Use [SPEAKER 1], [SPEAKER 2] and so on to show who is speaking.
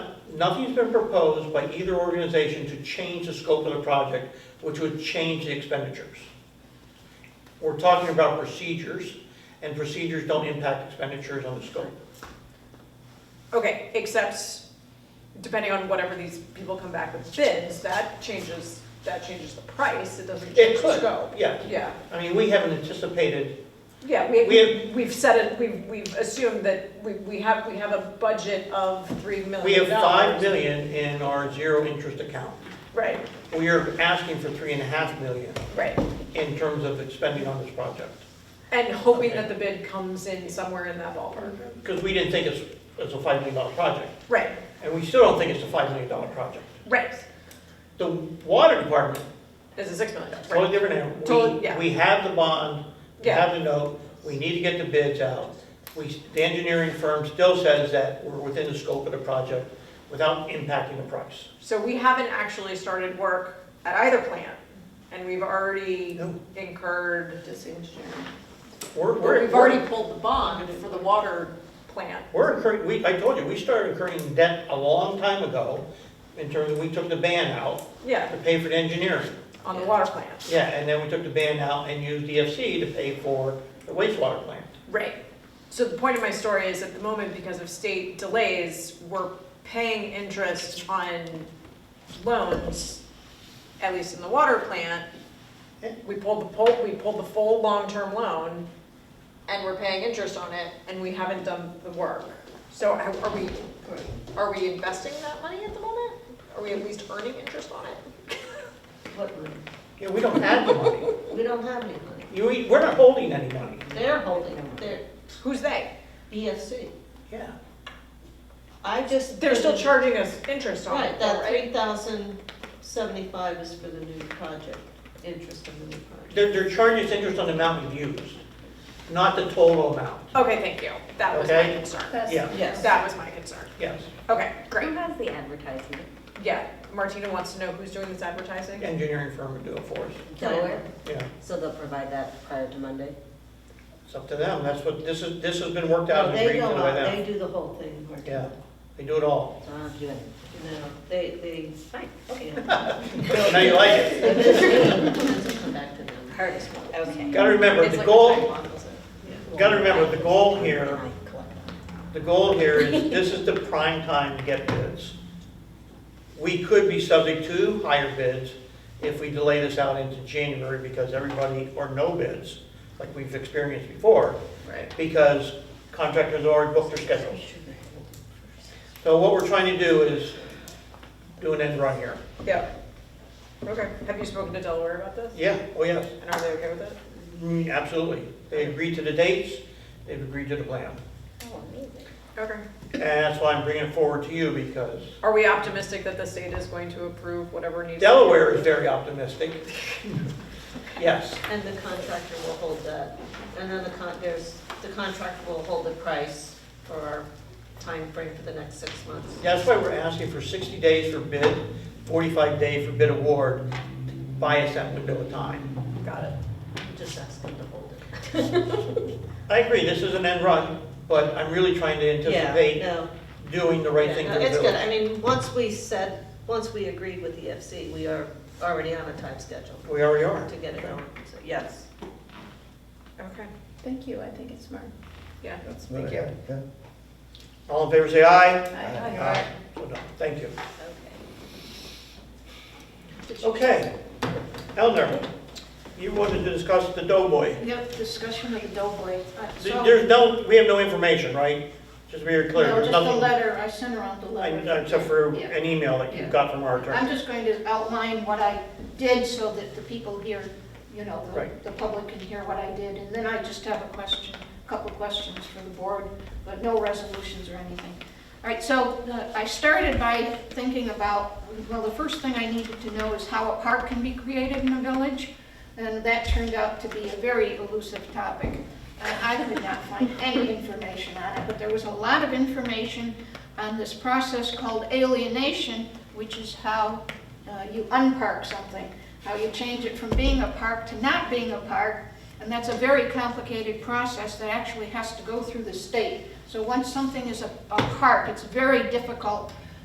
[SPEAKER 1] nothing's been proposed by either organization to change the scope of the project, which would change the expenditures. We're talking about procedures, and procedures don't impact expenditures on the scope.
[SPEAKER 2] Okay, except depending on whatever these people come back with bids, that changes, that changes the price, it doesn't
[SPEAKER 1] It
[SPEAKER 2] change the
[SPEAKER 1] could,
[SPEAKER 2] scope.
[SPEAKER 1] yeah.
[SPEAKER 2] Yeah,
[SPEAKER 1] I mean, we haven't anticipated,
[SPEAKER 2] yeah,
[SPEAKER 1] We
[SPEAKER 2] we, we've said it, we've, we've assumed that we, we have, we have a budget of three million dollars.
[SPEAKER 1] we have five million in our zero interest account.
[SPEAKER 2] Right,
[SPEAKER 1] We are asking for three and a half million
[SPEAKER 2] right,
[SPEAKER 1] in terms of expending on this project.
[SPEAKER 2] and hoping
[SPEAKER 1] Okay.
[SPEAKER 2] that the bid comes in somewhere in that ballpark.
[SPEAKER 1] Because we didn't think it's, it's a five million dollar project,
[SPEAKER 2] Right,
[SPEAKER 1] and we still don't think it's a five million dollar project.
[SPEAKER 2] right,
[SPEAKER 1] The water department,
[SPEAKER 2] it's a six million dollar, right.
[SPEAKER 1] totally different animal.
[SPEAKER 2] Totally,
[SPEAKER 1] We,
[SPEAKER 2] yeah.
[SPEAKER 1] we have the bond, we
[SPEAKER 2] Yeah.
[SPEAKER 1] have the note, we need to get the bids out. We, the engineering firm still says that we're within the scope of the project without impacting the price.
[SPEAKER 2] So we haven't actually started work at either plant, and we've already
[SPEAKER 1] No.
[SPEAKER 2] incurred,
[SPEAKER 3] Just engineering.
[SPEAKER 1] We're,
[SPEAKER 2] But
[SPEAKER 1] we're,
[SPEAKER 2] we've already
[SPEAKER 1] we're-
[SPEAKER 3] pulled the bond for the water.
[SPEAKER 2] plant.
[SPEAKER 1] we're incurring, we, I told you, we started incurring debt a long time ago in terms of, we took the ban out
[SPEAKER 2] Yeah,
[SPEAKER 1] to pay for the engineering.
[SPEAKER 2] on the water plant.
[SPEAKER 1] Yeah, and then we took the ban out and used DFC to pay for the wastewater plant.
[SPEAKER 2] Right. So the point of my story is at the moment, because of state delays, we're paying interest on loans, at least in the water plant.
[SPEAKER 1] Yeah.
[SPEAKER 2] We pulled the full, we pulled the full long-term loan and we're paying interest on it and we haven't done the work. So are are we, are we investing that money at the moment? Are we at least earning interest on it?
[SPEAKER 3] What money?
[SPEAKER 1] Yeah, we don't have the money.
[SPEAKER 3] We don't have any money.
[SPEAKER 1] You, we're not holding any money.
[SPEAKER 3] They're holding, them. they're
[SPEAKER 2] Who's they?
[SPEAKER 3] BFC.
[SPEAKER 1] Yeah.
[SPEAKER 3] I just.
[SPEAKER 2] They're still charging us interest on
[SPEAKER 3] Right,
[SPEAKER 2] it, though,
[SPEAKER 3] that
[SPEAKER 2] right?
[SPEAKER 3] three thousand seventy-five is for the new project, interest on the new project.
[SPEAKER 1] They're, they're charging us interest on the amount we've used, not the total amount.
[SPEAKER 2] Okay, thank you. That was my
[SPEAKER 1] Okay.
[SPEAKER 2] concern.
[SPEAKER 4] That's-
[SPEAKER 1] Yeah,
[SPEAKER 3] Yes.
[SPEAKER 2] That was my concern.
[SPEAKER 1] yes,
[SPEAKER 2] Okay, great.
[SPEAKER 4] Who has the advertisement?
[SPEAKER 2] Yeah, Martina wants to know who's doing this advertising.
[SPEAKER 1] engineering firm would do it for us,
[SPEAKER 4] Delaware?
[SPEAKER 1] yeah,
[SPEAKER 4] So they'll provide that prior to Monday?
[SPEAKER 1] it's up to them, that's what, this is, this has been worked out
[SPEAKER 3] No,
[SPEAKER 1] and
[SPEAKER 3] they
[SPEAKER 1] agreed to
[SPEAKER 3] go
[SPEAKER 1] by
[SPEAKER 3] out, they
[SPEAKER 1] them.
[SPEAKER 3] do the whole thing, Mark.
[SPEAKER 1] Yeah, they do it all,
[SPEAKER 4] So I don't have to do anything?
[SPEAKER 3] No, they, they,
[SPEAKER 4] Fine.
[SPEAKER 3] okay.
[SPEAKER 1] now you like it.
[SPEAKER 4] Come back to them. Hardest one. Okay.
[SPEAKER 1] Gotta remember,
[SPEAKER 2] It's
[SPEAKER 1] the
[SPEAKER 2] like
[SPEAKER 1] goal,
[SPEAKER 2] sidewalk, isn't it?
[SPEAKER 1] gotta remember, the goal here,
[SPEAKER 4] I collect them.
[SPEAKER 1] the goal here is, this is the prime time to get bids. We could be subject to higher bids if we delay this out into January, because everybody, or no bids, like we've experienced before,
[SPEAKER 2] Right.
[SPEAKER 1] because contractors already booked their schedules. So what we're trying to do is do an end run here.
[SPEAKER 2] Yeah. Okay. Have you spoken to Delaware about this?
[SPEAKER 1] Yeah, oh yes,
[SPEAKER 2] And are they okay with it?
[SPEAKER 1] Mm, absolutely. They agreed to the dates, they've agreed to the plan.
[SPEAKER 4] Oh, amazing.
[SPEAKER 2] Okay.
[SPEAKER 1] And that's why I'm bringing it forward to you, because
[SPEAKER 2] Are we optimistic that the state is going to approve whatever needs?
[SPEAKER 1] Delaware is very optimistic. Yes,
[SPEAKER 3] And the contractor will hold that, and then the con, there's, the contractor will hold the price for our timeframe for the next six months.
[SPEAKER 1] that's why we're asking for 60 days for bid, 45 day for bid award, to buy us that window of time.
[SPEAKER 2] Got it.
[SPEAKER 3] Just ask them to hold it.
[SPEAKER 1] I agree, this is an end run, but I'm really trying to
[SPEAKER 3] Yeah,
[SPEAKER 1] anticipate
[SPEAKER 3] no.
[SPEAKER 1] doing the right thing
[SPEAKER 3] Yeah,
[SPEAKER 1] for
[SPEAKER 3] no,
[SPEAKER 1] the
[SPEAKER 3] It's good,
[SPEAKER 1] village.
[SPEAKER 3] I mean, once we said, once we agreed with the FC, we are already on a time schedule
[SPEAKER 1] We already are.
[SPEAKER 3] to get it going, so, yes.
[SPEAKER 2] Okay.
[SPEAKER 5] Thank you, I think it's smart.
[SPEAKER 2] Yeah.
[SPEAKER 6] That's
[SPEAKER 1] Thank
[SPEAKER 6] what I
[SPEAKER 1] you.
[SPEAKER 6] had, yeah.
[SPEAKER 1] All in favor, say aye.
[SPEAKER 5] Aye.
[SPEAKER 1] So done. Thank you.
[SPEAKER 3] Okay.
[SPEAKER 1] Okay. Eleanor, you wanted to discuss the Doughboy.
[SPEAKER 7] Yep, discussion of the Doughboy. Uh,
[SPEAKER 1] Th-
[SPEAKER 7] so-
[SPEAKER 1] There's no, we have no information, right? Just very clear,
[SPEAKER 7] No,
[SPEAKER 1] there's
[SPEAKER 7] just a
[SPEAKER 1] nothing,
[SPEAKER 7] letter, I sent around the
[SPEAKER 1] I-
[SPEAKER 7] letter.
[SPEAKER 1] except for
[SPEAKER 7] Yeah.
[SPEAKER 1] an email that you
[SPEAKER 7] Yeah.
[SPEAKER 1] got from our
[SPEAKER 7] I'm
[SPEAKER 1] attorney.
[SPEAKER 7] just going to outline what I did so that the people here, you know, the-
[SPEAKER 1] Right.
[SPEAKER 7] the public can hear what I did. And then I just have a question, a couple questions for the board, but no resolutions or anything. All right, so uh, I started by thinking about, well, the first thing I needed to know is how a park can be created in a village. And that turned out to be a very elusive topic. I I could not find any information on it, but there was a lot of information on this process called alienation, which is how uh, you unpark something, how you change it from being a park to not being a park. And that's a very complicated process that actually has to go through the state. So once something is a a park, it's very difficult